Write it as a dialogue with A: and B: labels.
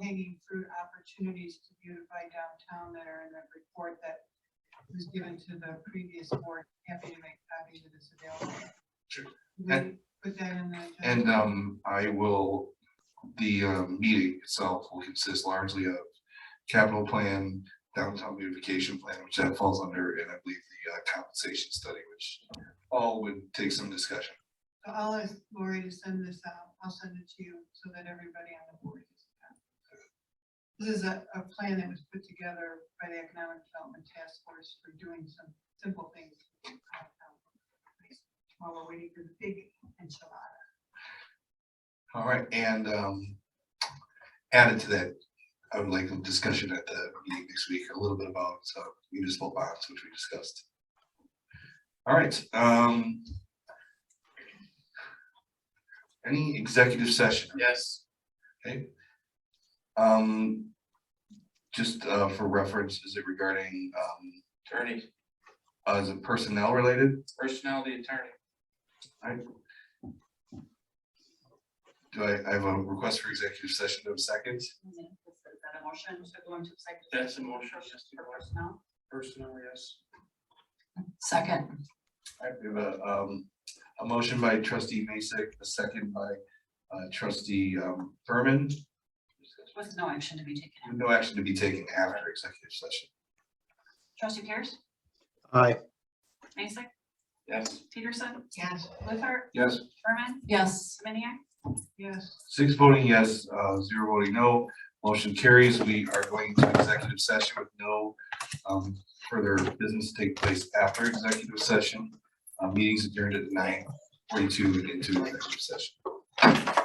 A: low-hanging fruit opportunities to beautify downtown that are in the report that was given to the previous board. Happy to make copies of this available.
B: Sure.
A: We Put that in the.
B: And um, I will, the uh, meeting itself will consist largely of capital plan, downtown beautification plan, which that falls under, and I believe the uh, compensation study, which all would take some discussion.
A: So I'll ask Lori to send this out. I'll send it to you so that everybody on the board is. This is a, a plan that was put together by the Economic Development Task Force for doing some simple things. While we're waiting for the big enchilada.
B: All right, and um, added to that, I would like a discussion at the meeting next week, a little bit about uh, municipal bonds, which we discussed. All right, um. Any executive session?
C: Yes.
B: Um, just, uh, for reference, is it regarding, um,
C: Attorney,
B: uh, is it personnel related?
C: personality attorney.
B: Do I, I have a request for executive session of seconds?
D: Is that a motion to go into executive?
C: That's a
D: session
C: motion,
D: for-
C: yes.
D: For personnel?
C: Personnel, yes.
D: Second.
B: I have a, um, a motion by trustee Masek, a second by, uh, trustee, um, Furman.
D: With no action to be taken.
B: No action to be taken after executive session.
D: Trustee Pierce,
E: Aye.
D: Mason,
C: Yes.
D: Peterson,
A: Yes.
D: Luther,
B: Yes.
D: Berman. Yes. Semeniac.
A: Yes.
B: Six voting yes, uh, zero voting no. Motion carries. We are going to executive session with no um, further business to take place after executive session. Uh, Meetings adjourned at nine forty-two into executive session.